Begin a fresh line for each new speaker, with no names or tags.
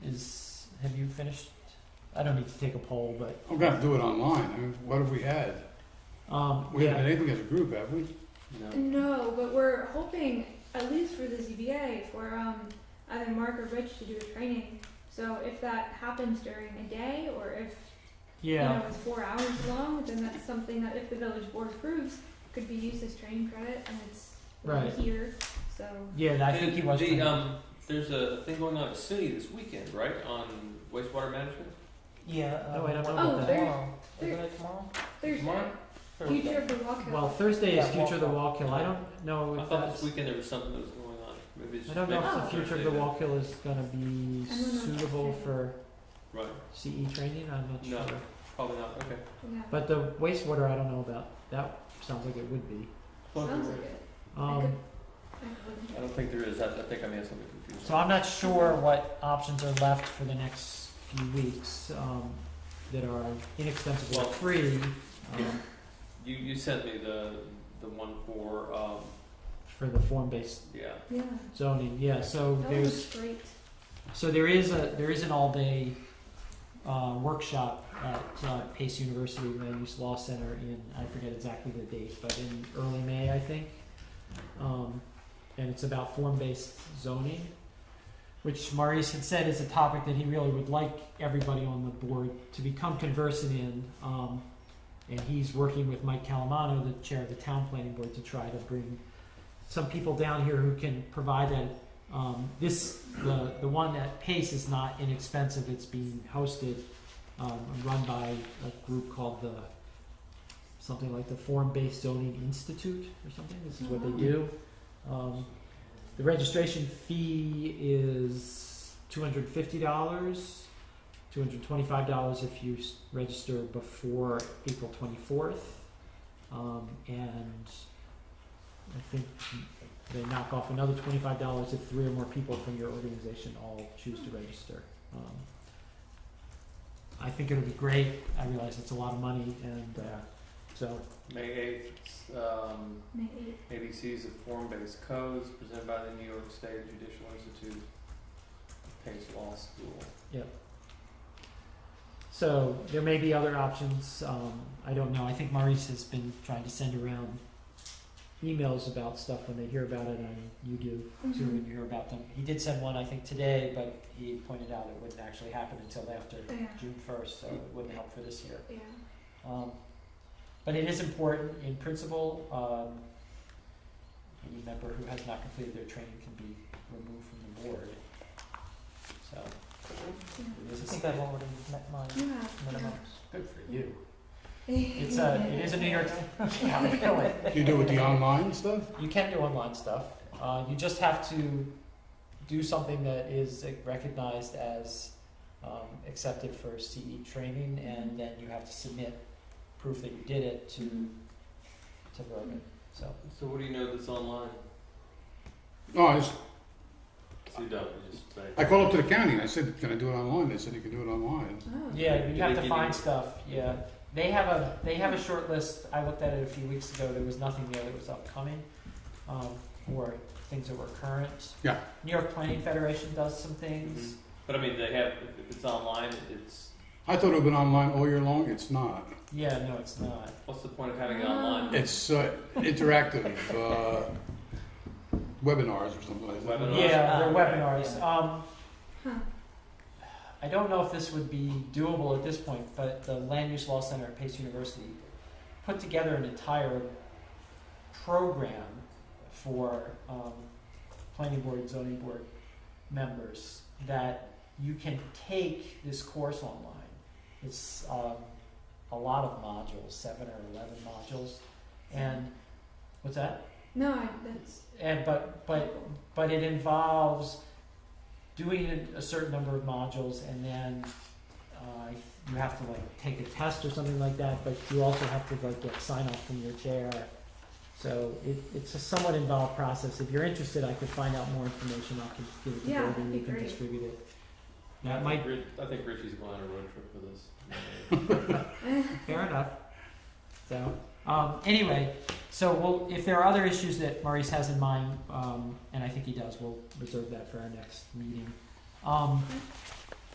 have you finished? I don't need to take a poll, but,
I'm gonna do it online, I mean, what have we had?
um,
We
yeah.
haven't had anything as a group, have we?
No.
No, but we're hoping, at least for the ZBA, for um, either Mark or Rich to do a training. So if that happens during a day, or if you
Yeah,
know it's four hours long, then that's something that if the village board approves, could be used as training credit, and it's already
Right.
here. So
yeah, I think he was.
The,
trying-
um, there's a thing going on at SUNY this weekend, right, on wastewater management?
Yeah.
Uh, No, wait, I'm
um,
talking
about Oh, that. there-
tomorrow.
there-
Isn't it tomorrow?
Thursday,
Tomorrow?
Thursday.
future of the walk
Well,
hill.
Thursday is
Yeah,
Future of the
Walk
Walk Hill. I don't know
I
if
thought
that's.
this weekend there was something that was going on. Maybe it's
Oh, I
just
don't know
maybe
if
it's
the Future of
Thursday
the
then.
Walk Hill is gonna be
I don't know.
suitable for
Right,
CE training. I'm not
No.
sure.
probably not. Okay.
Yeah,
But the wastewater, I don't know about. That sounds like it would be.
Well,
sounds like it. I
Um,
could, I could.
I don't think there is. I, I think I may have something confused.
so I'm not sure what options are left for the next few weeks, um, that are inexpensive or
Well,
free.
yeah.
Um,
You you sent me the the one for um
for the form-based
yeah.
Yeah,
zoning, yeah, so
that
there's,
was great.
so there is a, there is an all-day, uh, workshop at, uh, Pace University Land Use Law Center in, I forget exactly the date, but in early May, I think. Um, and it's about form-based zoning, which Maurice had said is a topic that he really would like everybody on the board to become conversant in. Um, and he's working with Mike Calamano, the chair of the town planning board, to try to bring some people down here who can provide that. Um, this, the, the one at Pace is not inexpensive, it's being hosted, um, and run by a group called the, something like the Forum Based Zoning Institute or something, this is what they do. Um, the registration fee is two hundred fifty dollars, two hundred twenty-five dollars if you s- register before April twenty-fourth. Um, and I think they knock off another twenty-five dollars if three or more people from your organization all choose to register. Um, I think it'll be great, I realize it's a lot of money and, uh, so,
May eighth. Um,
May eighth.
ABCs of form-based codes presented by the New York State Judicial Institute, Pace Law School.
So there may be other options. Um, I don't know. I think Maurice has been trying to send around emails about stuff when they hear about it, and you do too
Mhm.
when you hear about them. He did send one, I think, today, but he pointed out it wouldn't actually happen until after
Yeah,
June first, so it wouldn't help for this year.
yeah.
Um, but it is important in principle. Um, any member who has not completed their training can be removed from the board. So it
I
is a
think I've already met my
Yeah, yeah.
minimums.
Good for you.
It's a, it is a New York, yeah, really.
Do you do with the online stuff?
You can do online stuff. Uh, you just have to do something that is recognized as um, accepted for CE training, and then you have to submit proof that you did it to to Brogan. So
So what do you know that's online?
No, I just,
So you don't. You just say.
I called up to the county and I said, can I do it online? They said you can do it online.
Oh.
yeah,
Do
you
they
have
give
to
you-
find stuff. Yeah, they have a they have a short list. I looked at it a few weeks ago. There was nothing there that was upcoming, um, or things that were current.
Yeah.
New York Planning Federation does some things.
Mhm. But I mean, they have. If, if it's online, it's
I thought it would been online all year long, it's not.
Mm-hmm.
Yeah, no, it's not.
what's the point of having it online?
It's uh, interactive, uh, webinars or something like that.
Webinars.
Yeah,
Ah,
they're
right,
webinars.
yeah.
Um,
Oh, Huh.
I don't know if this would be doable at this point, but the Land Use Law Center at Pace University put together an entire program for um, planning board, zoning board members that you can take this course online. It's um, a lot of modules, seven or eleven modules, and what's that?
No, I, that's.
And but but but it involves doing a- a certain number of modules and then uh, you have to like take a test or something like that. But you also have to like get sign off from your chair. So it, it's a somewhat involved process. If you're interested, I could find out more information. I can give it to
Yeah,
David
that'd
and
be
you can
great.
distribute it.
I
That
think
might
Rich- I think Richie's going on a road trip with us.
fair enough. So um, anyway, so we'll, if there are other issues that Maurice has in mind, um, and I think he does, we'll reserve that for our next meeting. Um,